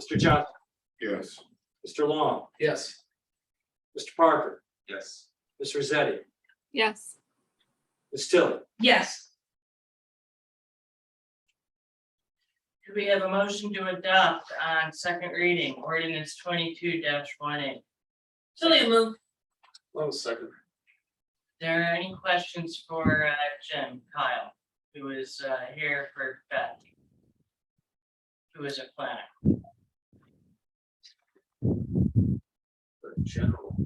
Mr. Johnson, Yes. Mr. Long, Yes. Mr. Parker, Yes. Ms. Rosetti, yes, Ms. Tilly. Yes. Do we have a motion to adopt on second reading, ordinance twenty-two one eight? Tilly move. One second. There are any questions for uh, Jim Kyle, who is uh, here for Beth? Who is a planner? a general,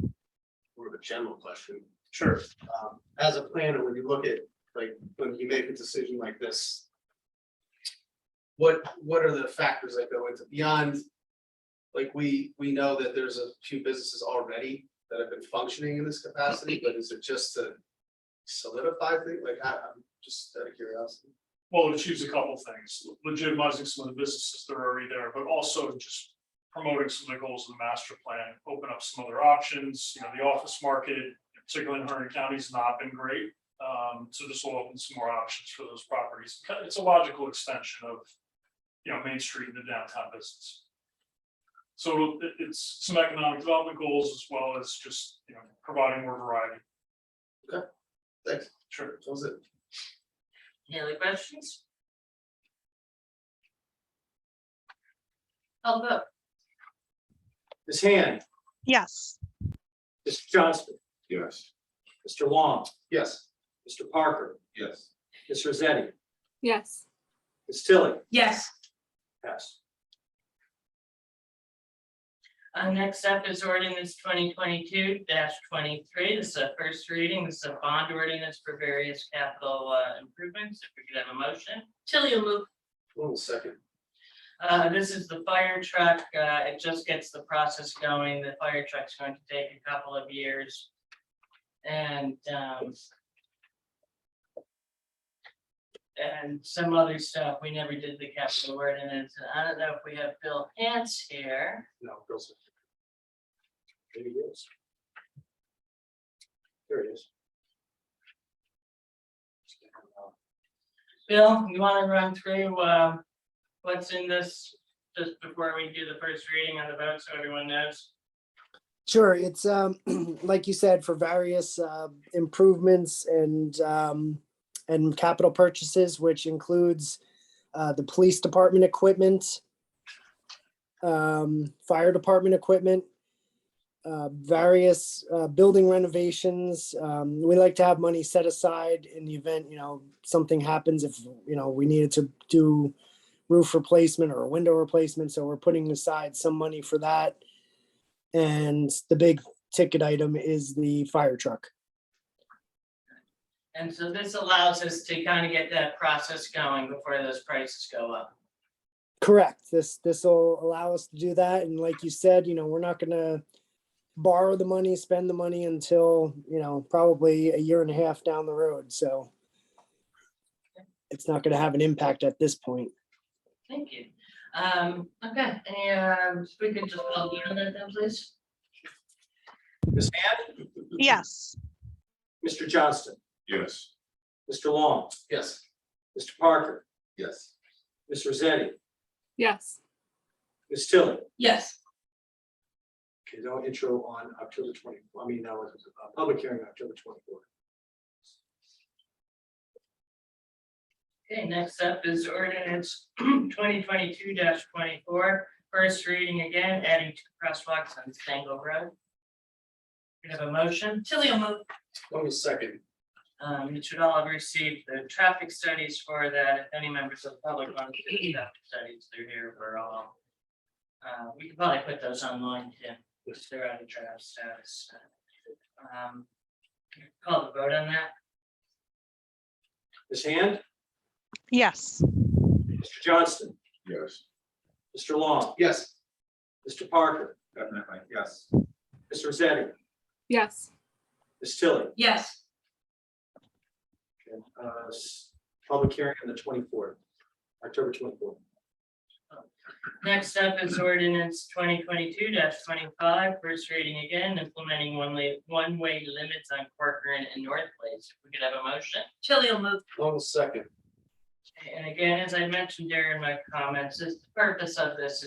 more of a general question. Sure. Um, As a planner, when you look at, like, when you make a decision like this, what, what are the factors that go into beyond? Like, we, we know that there's a few businesses already that have been functioning in this capacity, but is it just to solidify things? Like, I, I'm just out of curiosity. Well, it achieves a couple things, legitimizing some of the businesses that are already there, but also just promoting some of the goals of the master plan, open up some other options, you know, the office market, particularly in Hunter County, has not been great. Um, so this will open some more options for those properties. Kind of- It's a logical extension of, you know, Main Street and the downtown business. So it'll- it- it's some economic development goals as well as just, you know, providing more variety. Thanks. Sure. That was it. Any other questions? I'll vote. Ms. Hand, yes, Mr. Johnston, Yes. Mr. Long, Yes. Mr. Parker, Yes. Ms. Rosetti, yes, Ms. Tilly. Yes. Pass. Uh, next up is ordinance twenty twenty-two twenty-three. This is a first reading. This is a bond ordinance for various capital uh, improvements. If we could have a motion. Tilly will move. One second. Uh, this is the fire truck. Uh, it just gets the process going. The fire truck's going to take a couple of years. And, um. And some other stuff. We never did the capital ordinance. And I don't know if we have Bill Hance here. No, girls. Maybe it is. There it is. Bill, you wanna run through, um, what's in this? Just before we do the first reading on the vote, so everyone knows. Sure, it's um, like you said, for various uh, improvements and um, and capital purchases, which includes uh, the police department equipment, um, fire department equipment, uh, various uh, building renovations. Um, we like to have money set aside in the event you know something happens if you know we needed to do roof replacement or a window replacement, so we're putting aside some money for that. And the big ticket item is the fire truck. And so this allows us to kind of get that process going before those prices go up. Correct. This, this will allow us to do that. And like you said, you know, we're not gonna borrow the money, spend the money until, you know, probably a year and a half down the road. So it's not gonna have an impact at this point. Thank you. Um, okay, and we could just all be on that then, please? Ms. Hand, yes, Mr. Johnston, Yes. Mr. Long, Yes. Mr. Parker, Yes. Ms. Rosetti, yes, Ms. Tilly. Yes. Okay, no intro on October twenty, I mean, no, it's a public hearing on October twenty-fourth. Okay, next up is ordinance twenty twenty-two 24 twenty-four, first reading again, adding two crosswalks on Stangle Road. We have a motion. Tilly will move. One second. Um, you should all have received the traffic studies for that. If any members of the public want to see the traffic studies, they're here for all. Uh, we could probably put those online too, if they're out of draft status. Um, Call the vote on that. Ms. Hand, yes. Mr. Johnston, Yes. Mr. Long, Yes. Mr. Parker, Definitely, yes. Ms. Rosetti, yes. Ms. Tilly. Yes. Okay, uh, s- Public hearing on the twenty-fourth, October twenty-fourth. Next up is ordinance twenty twenty-two 25 twenty-five, first reading again, implementing one-way, one-way limits on Corcoran and North Place. If We could have a motion. Tilly will move. One second. And again, as I mentioned during my comments, this- the purpose of this is